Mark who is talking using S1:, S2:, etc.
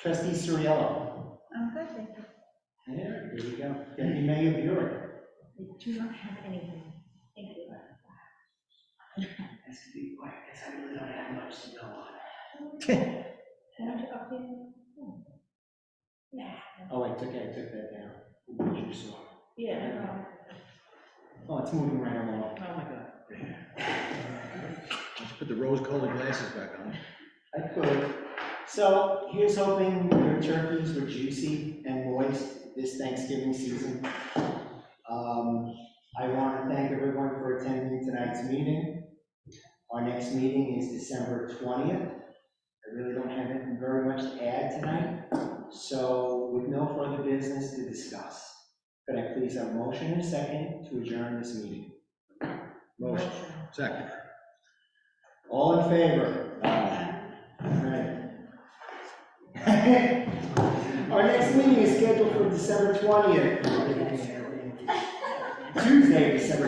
S1: Trustee Suriello.
S2: I'm good, thank you.
S1: There, there you go. Deputy Mayor Buick.
S2: I do not have anything. Thank you.
S3: That's to be quiet, because I really don't have much to go on.
S2: Can I do update? Hmm. Yeah.
S1: Oh, I took, I took that down. You saw it.
S2: Yeah.
S1: Oh, it's moving right along.
S3: Oh, my God.
S4: Let's put the rose-colored glasses back on.
S1: I could. So here's hoping your turkeys were juicy and moist this Thanksgiving season. Um, I want to thank everyone for attending tonight's meeting. Our next meeting is December 20th. I really don't have anything very much to add tonight, so with no further business to discuss, could I please have a motion and a second to adjourn this meeting?
S4: Motion, second.
S1: All in favor? Aye. Our next meeting is scheduled for December twentieth. Tuesday, December